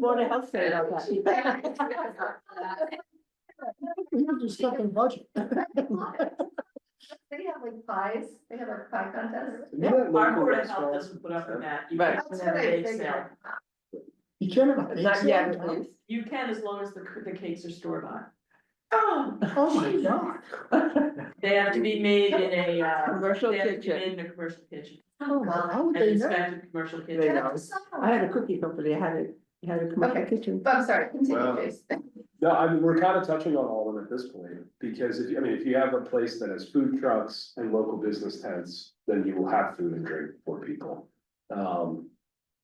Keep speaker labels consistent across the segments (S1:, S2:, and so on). S1: Board of Health said about that.
S2: They
S3: We have to stuff in budget.
S2: have like pies, they have like pie contest.
S1: Our Board of Health doesn't put up with that. You
S4: Right.
S1: can put that
S2: That's
S1: bake
S2: what I
S1: sale.
S2: figured.
S3: You can't have a bake
S4: Not yet, at
S3: sale?
S4: least.
S1: You can as long as the, c- the cakes are store bought. Oh,
S3: Oh, my God.
S1: they have to be made in a, uh,
S4: Commercial
S1: they have to be
S4: kitchen.
S1: made in a commercial kitchen,
S2: Oh, God.
S3: How would
S1: an
S3: they know?
S1: inspected commercial
S4: They
S1: kitchen.
S4: know. I had a
S2: I'm
S4: cookie company, I had it, I had a commercial
S2: Okay.
S4: kitchen.
S2: sorry, continue,
S5: Wow.
S2: Jason.
S5: No, I mean, we're kind of touching on all of them at this point, because if, I mean, if you have a place that has food trucks and local business tents, then you will have food and drink for people. Um,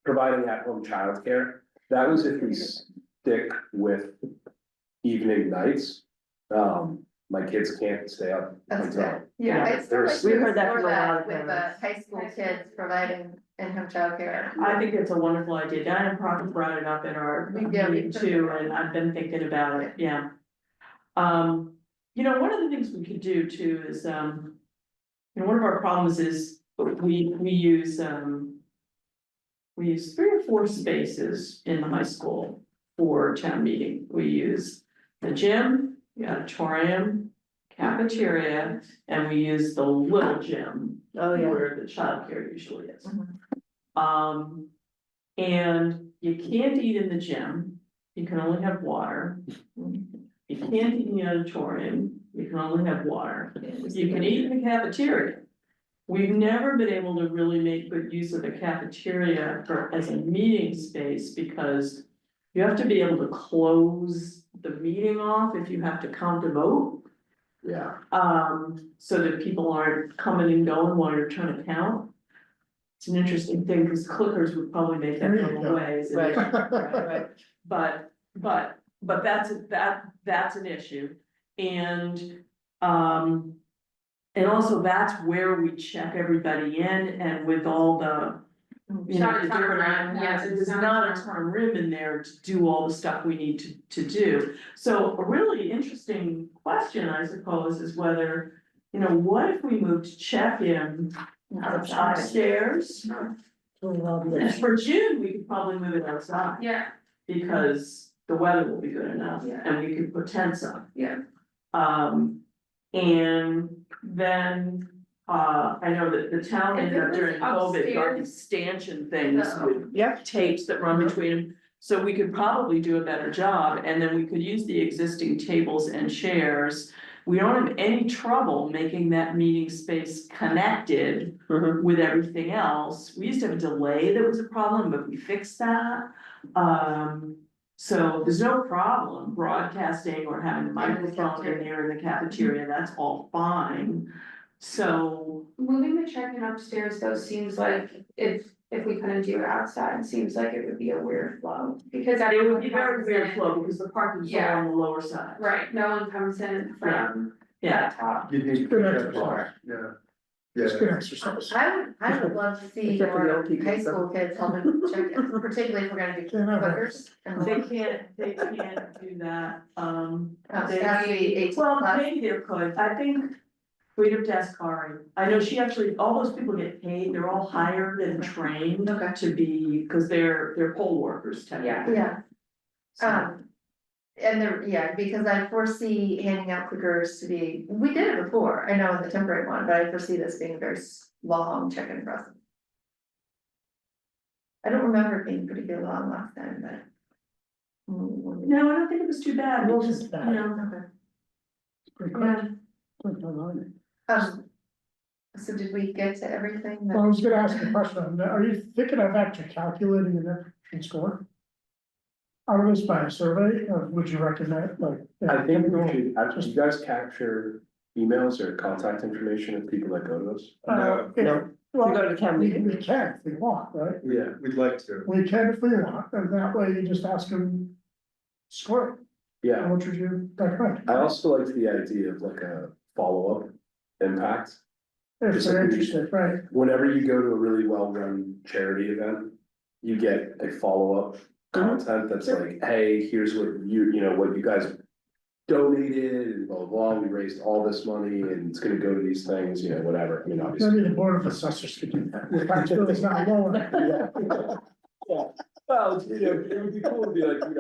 S5: providing at-home childcare, that was if we stick with evening nights. Um, my kids can't stay up
S2: That's
S5: until,
S2: good. Yeah, I still
S5: there's-
S2: like to
S5: We
S4: heard that
S2: explore
S4: from a lot
S2: that
S4: of
S2: with the
S4: parents.
S2: high school kids providing in-home childcare.
S1: I think it's a wonderful idea, Diana Proctor brought it up in our
S2: We did, we
S1: meeting
S2: put it
S1: too,
S2: in.
S1: and I've been thinking about it, yeah. Um, you know, one of the things we could do too is, um. You know, one of our problems is we, we use, um. We use three or four spaces in the high school for town meeting, we use the gym, the auditorium. Cafeteria, and we use the little gym
S4: Oh, yeah. Mm-hmm.
S1: where the childcare usually is.
S2: Mhm.
S1: Um, and you can't eat in the gym, you can only have water. You can't eat in the auditorium, you can only have water, you can eat in the cafeteria. We've never been able to really make good use of the cafeteria for, as a meeting space, because you have to be able to close the meeting off if you have to count a vote.
S5: yeah.
S1: Um, so that people aren't coming and going while you're trying to count. It's an interesting thing, because clickers would probably make that go away, is
S4: Right.
S1: Right, but, but, but that's, that, that's an issue. And, um. And also that's where we check everybody in and with all the, you know,
S6: Shot
S1: the
S6: time
S1: different.
S6: around,
S1: Yes,
S6: yes,
S1: there's
S6: shot
S1: not a
S6: time.
S1: time room in there to do all the stuff we need to, to do. So a really interesting question, I suppose, is whether, you know, what if we moved check-in upstairs? For June, we could probably move it outside
S6: Yeah,
S1: because the weather will be good enough
S6: Yeah.
S1: and we can put tents up.
S6: Yeah.
S1: Um, and then, uh, I know that the town
S6: If
S1: ended up
S6: it was
S1: during COVID, got these
S6: upstairs-
S1: stanchion things
S6: No.
S1: with
S4: Yeah.
S1: tapes that run between them. So we could probably do a better job and then we could use the existing tables and chairs. We don't have any trouble making that meeting space connected
S4: Mhm.
S1: with everything else, we used to have a delay that was a problem, but we fixed that. Um, so there's no problem broadcasting or having a microphone in there in the cafeteria, that's all fine. So,
S6: moving the check-in upstairs though seems like if, if we couldn't do it outside, seems like it would be a weird flow. Because
S1: it
S6: everyone
S1: would be very
S6: comes
S1: weird
S6: in,
S1: flow because the parking's all
S6: Yeah.
S1: on the lower side.
S6: right, no one comes in from
S1: Yeah,
S6: that top.
S5: You need.
S3: Good exercise.
S5: Yeah.
S3: It's good exercise.
S2: I would, I would love to see
S4: Except for the
S2: more
S4: old people,
S2: high
S4: so.
S2: school kids helping check, particularly if we're gonna do
S3: Can't have that.
S2: clickers. and
S1: they can't, they can't do that, um.
S2: Uh,
S1: They-
S2: that's the eight
S1: Well,
S2: plus.
S1: maybe there could, I think we'd have to ask Kari, I know she actually, all those people get paid, they're all hired and trained
S2: Okay.
S1: to be, cause they're, they're poll workers technically.
S2: Yeah,
S1: So-
S2: um. And there, yeah, because I foresee handing out clickers to be, we did it before, I know in the temporary one, but I foresee this being a very s- long check-in process. I don't remember it being particularly long last time, but. Mm,
S1: No, I don't think it was too bad,
S3: It
S1: Well,
S3: wasn't
S1: just, you
S2: uh,
S3: bad.
S1: know,
S2: okay.
S3: Pretty quick.
S2: Yeah,
S3: Quick, I like it.
S2: um, so did we get to everything
S3: Well, I
S2: that,
S3: was gonna ask a question, are you thinking of actually calculating an action score? Out of this by a survey, or would you recommend, like?
S5: I think we should, uh, do you guys capture emails or contact information of people that go to us?
S3: Uh,
S4: No.
S3: if-
S4: We
S3: well,
S4: go to town
S3: we,
S4: meeting.
S3: we can if we want, right?
S5: Yeah, we'd like to.
S3: We can if we want, and that way you just ask them. Score,
S5: Yeah,
S3: and what would you recommend?
S5: I also liked the idea of like a follow-up impact.
S3: If
S5: Just
S3: they're
S5: like we-
S3: interested, right,
S5: Whenever you go to a really well-run charity event, you get a follow-up content that's like, hey, here's what you, you know, what you guys donated and blah, blah, blah, we raised all this money and it's gonna go to these things, you know, whatever, I mean, obviously.
S3: maybe the board of assessors could do that, the tax bill is not low enough.
S5: Yeah. Yeah, Well, you know, it would be cool to be like, you know,